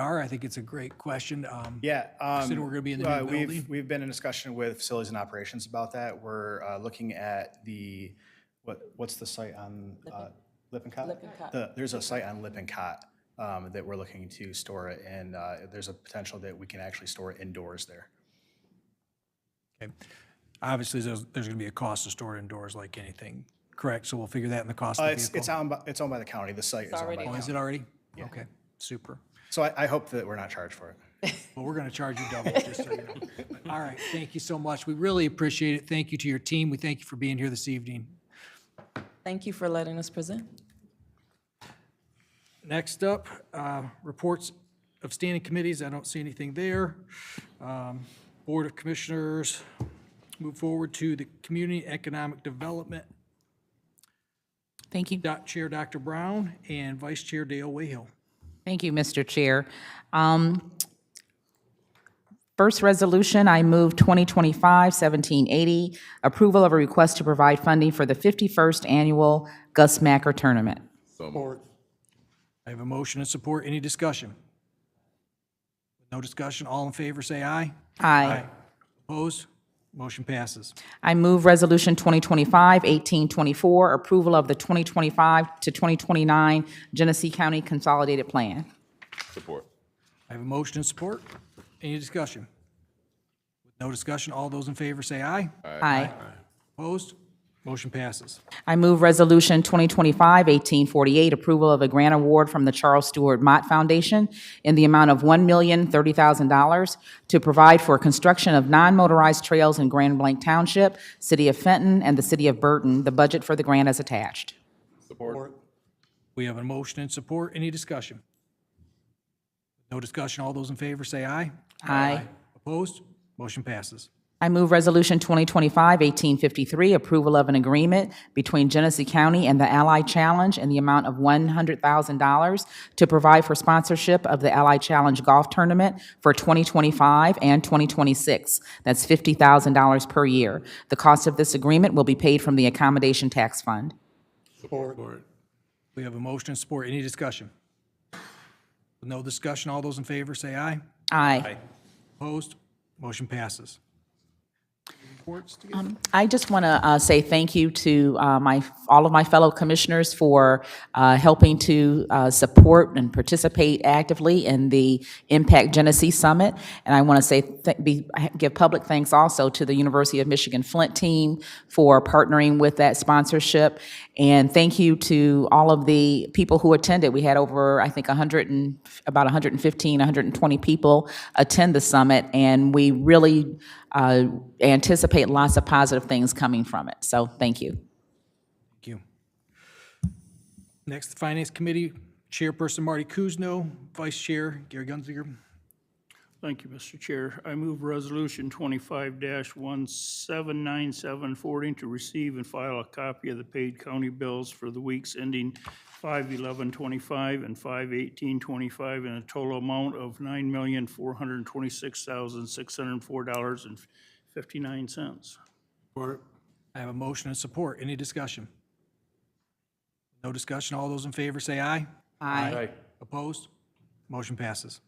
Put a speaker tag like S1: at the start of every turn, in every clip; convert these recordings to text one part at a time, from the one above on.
S1: are. I think it's a great question. Um,
S2: Yeah.
S1: said
S2: um,
S1: we're gonna be in the new
S2: uh, we've-
S1: building?
S2: We've been in discussion with facilities and operations about that. We're uh, looking at the, what, what's the site on uh, Lippincott?
S3: Lippincott.
S2: The- There's a site on Lippincott um, that we're looking to store it in. Uh, There's a potential that we can actually store it indoors there.
S1: okay. Obviously, there's, there's going to be a cost to store it indoors like anything, correct? So we'll figure that in the cost
S2: Uh,
S1: of the
S2: It's,
S1: vehicle.
S2: it's owned by, it's owned by the county. The site is owned by
S3: already
S2: the
S1: Oh, is
S2: county.
S1: it already? Okay, super.
S2: So I, I hope that we're not charged for it.
S1: Well, we're going to charge you double, just so you know. All right, thank you so much. We really appreciate it. Thank you to your team. We thank you for being here this evening.
S3: Thank you for letting us present.
S1: Next up, uh, reports of standing committees. I don't see anything there. Um, Board of Commissioners, move forward to the Community Economic Development.
S4: Thank you.
S1: Doc- Chair Dr. Brown and Vice Chair Dale Wayhill.
S4: Thank you, Mr. Chair. Um, First resolution, I move 2025-1780, approval of a request to provide funding for the 51st Annual Gus Macker Tournament.
S1: I have a motion and support. Any discussion? No discussion. All in favor, say aye.
S4: Aye.
S1: Opposed? Motion passes.
S4: I move Resolution 2025-1824, approval of the 2025 to 2029 Genesee County Consolidated Plan.
S5: Support.
S1: I have a motion and support. Any discussion? No discussion. All those in favor, say aye.
S4: Aye.
S1: Opposed? Motion passes.
S4: I move Resolution 2025-1848, approval of a grant award from the Charles Stewart Mott Foundation in the amount of $1,030,000 to provide for construction of non-motorized trails in Grand Blanc Township, City of Fenton, and the City of Burton. The budget for the grant is attached.
S5: Support.
S1: We have a motion and support. Any discussion? No discussion. All those in favor, say aye.
S4: Aye.
S1: Opposed? Motion passes.
S4: I move Resolution 2025-1853, approval of an agreement between Genesee County and the Ally Challenge in the amount of $100,000 to provide for sponsorship of the Ally Challenge Golf Tournament for 2025 and 2026. That's $50,000 per year. The cost of this agreement will be paid from the Accommodation Tax Fund.
S1: We have a motion and support. Any discussion? No discussion. All those in favor, say aye.
S4: Aye.
S1: Opposed? Motion passes.
S4: Um, I just want to uh, say thank you to uh, my, all of my fellow commissioners for uh, helping to uh, support and participate actively in the Impact Genesee Summit. And I want to say, th- be- give public thanks also to the University of Michigan Flint team for partnering with that sponsorship. And thank you to all of the people who attended. We had over, I think, 100 and, about 115, 120 people attend the summit, and we really uh, anticipate lots of positive things coming from it. So thank you.
S1: Thank you. Next, the Finance Committee Chairperson Marty Kuzno, Vice Chair Gary Gunziger.
S6: Thank you, Mr. Chair. I move Resolution 25-1797 forwarding to receive and file a copy of the paid county bills for the weeks ending 5/11/25 and 5/18/25 in a total amount of $9,426,604.59.
S1: I have a motion and support. Any discussion? No discussion. All those in favor say aye.
S4: Aye.
S1: Opposed? Motion passes.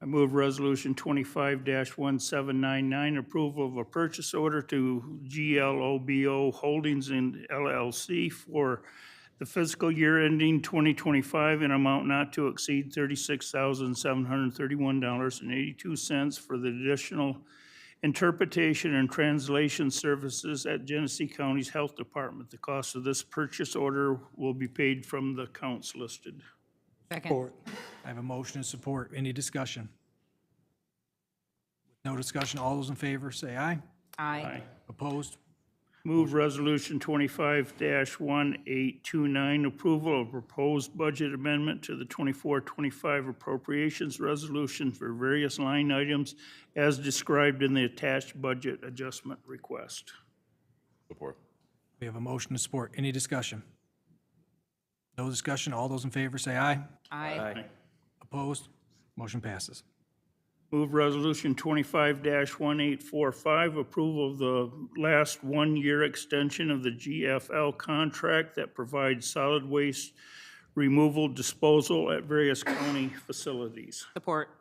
S6: I move Resolution 25-1799, approval of a purchase order to GLOBO Holdings and LLC for the fiscal year ending 2025 in amount not to exceed $36,731.82 for the additional interpretation and translation services at Genesee County's Health Department. The cost of this purchase order will be paid from the accounts listed.
S4: Second.
S1: I have a motion and support. Any discussion? No discussion. All those in favor say aye.
S4: Aye.
S1: Opposed?
S6: Move Resolution 25-1829, approval of proposed budget amendment to the 24-25 appropriations resolution for various line items as described in the attached budget adjustment request.
S5: Support.
S1: We have a motion and support. Any discussion? No discussion. All those in favor say aye.
S4: Aye.
S1: Opposed? Motion passes.
S6: Move Resolution 25-1845, approval of the last one-year extension of the GFL contract that provides solid waste removal, disposal at various county facilities.
S4: Support.